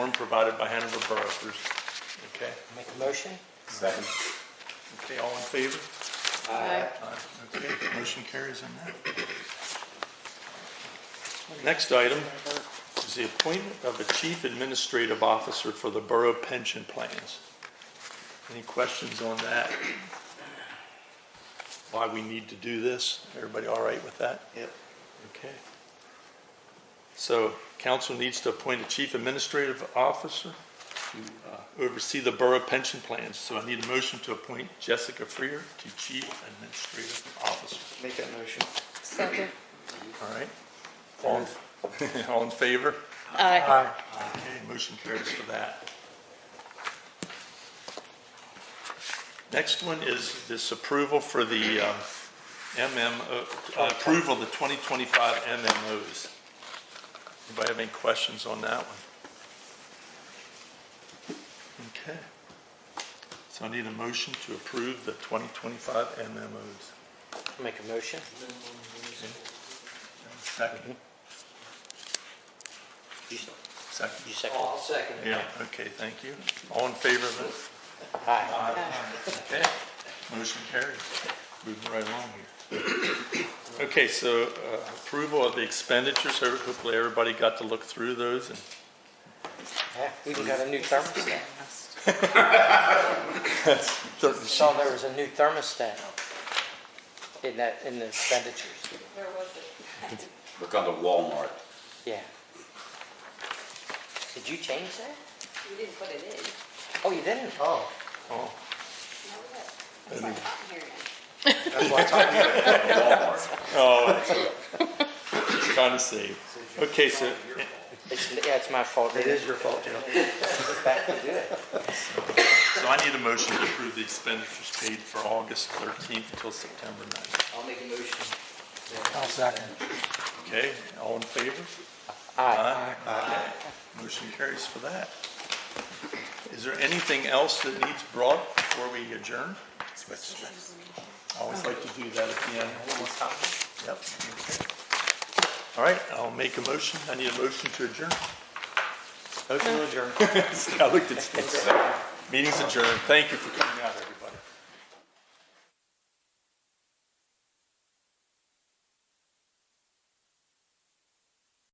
form provided by Hanover Borough Bruce. Okay, Make a motion? Second. okay, all in favor? Aye. Aye. Okay, motion carries on that. Next item is the appointment of a chief administrative officer for the borough pension plans. Any questions on that? Why we need to do this? Everybody all right with that? Yep. Okay. So council needs to appoint a chief administrative officer to uh, oversee the borough pension plans. So I need a motion to appoint Jessica Freer to chief administrative officer. Make that motion. Second. All right? All in- All in favor? Aye. Okay, motion carries for that. Next one is this approval for the um, MMO, uh, approval of the 2025 MMOs. Anybody have any questions on that one? Okay. So I need a motion to approve the 2025 MMOs. Make a motion? Second, You second. you second? I'll second Yeah, okay, thank you. All in favor of it? Aye. Okay, motion carried. Moving right along here. Okay, so uh, approval of the expenditures, So hopefully everybody got to look through those, and Yeah, We even got a new thermostat. I certain- saw there was a new thermostat in that, in the expenditures. Where was it? Look under Walmart. Yeah. Did you change that? We didn't put it in. Oh, you didn't? Oh. oh, That's why I'm not hearing it. Walmart. Oh, trying to save. Okay, so, It's, yeah, it's my fault. It is your fault, Joe. Back to do it. so I need a motion to approve the expenditures paid for August 13th until September 9th. I'll make a motion. Okay, all in favor? Aye. Aye. Motion carries for that. Is there anything else that needs brought before we adjourn? I always like to do that at the end. Yep. All right, I'll make a motion. I need a motion to adjourn. Motion to adjourn. I looked at Steve. Meeting's adjourned. Thank you for coming out, everybody.